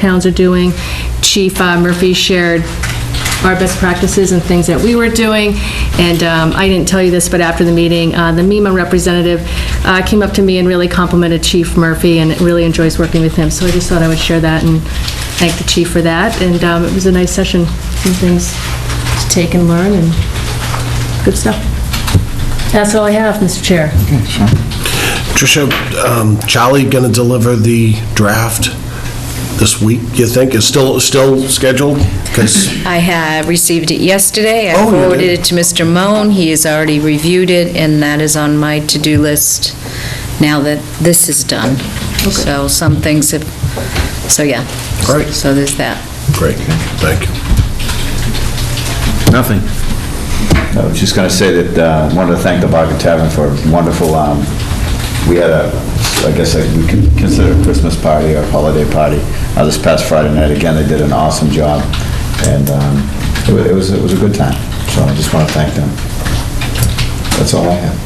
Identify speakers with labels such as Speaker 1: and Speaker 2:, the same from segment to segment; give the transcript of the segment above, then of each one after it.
Speaker 1: towns are doing. Chief uh, Murphy shared our best practices and things that we were doing. And um, I didn't tell you this, but after the meeting, uh, the MEMA representative uh, came up to me and really complimented Chief Murphy and really enjoys working with him. So I just thought I would share that and thank the chief for that. And um, it was a nice session, some things to take and learn and good stuff. That's all I have, Mr. Chair.
Speaker 2: Tricia, um, Charlie going to deliver the draft this week, you think? Is still, still scheduled? Because,
Speaker 3: I have received it yesterday.
Speaker 2: Oh, you
Speaker 3: I
Speaker 2: did?
Speaker 3: forwarded it to Mr. Moan. He has already reviewed it, and that is on my to-do list now that this is done. So some things have, so yeah.
Speaker 2: Great.
Speaker 3: So there's that.
Speaker 2: great, thank you.
Speaker 4: Nothing.
Speaker 5: I was just going to say that, uh, wanted to thank the Bargain Tavern for a wonderful, um, we had a, I guess I- we can consider it a Christmas party or a holiday party, uh, this past Friday night. Again, they did an awesome job, and um, it wa- it was, it was a good time. So I just want to thank them. That's all I have.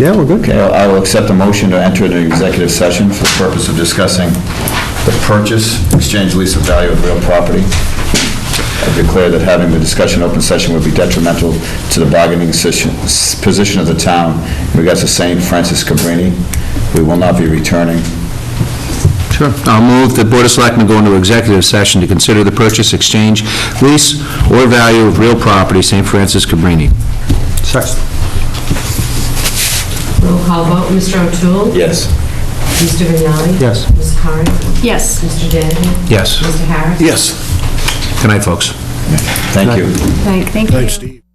Speaker 4: Yeah, we're good.
Speaker 5: Okay, I will accept a motion to enter an executive session for the purpose of discussing the purchase, exchange, lease of value of real property. I declare that having the discussion open session would be detrimental to the bargaining session- s- position of the town in regards to St. Francis Cabrini. We will not be returning.
Speaker 4: Sure. I'll move the Board of Selectmen go into executive session to consider the purchase, exchange, lease, or value of real property, St. Francis Cabrini.
Speaker 6: Roll call vote, Mr. O'Toole?
Speaker 5: Yes.
Speaker 6: Mr. Vignani?
Speaker 4: Yes.
Speaker 6: Ms. Curran?
Speaker 1: Yes.
Speaker 6: Mr. Danahy?
Speaker 4: Yes.
Speaker 6: Mr. Harris?
Speaker 2: Yes.
Speaker 4: Good night, folks.
Speaker 5: Thank you.
Speaker 1: Thank you.
Speaker 2: Thanks, Steve.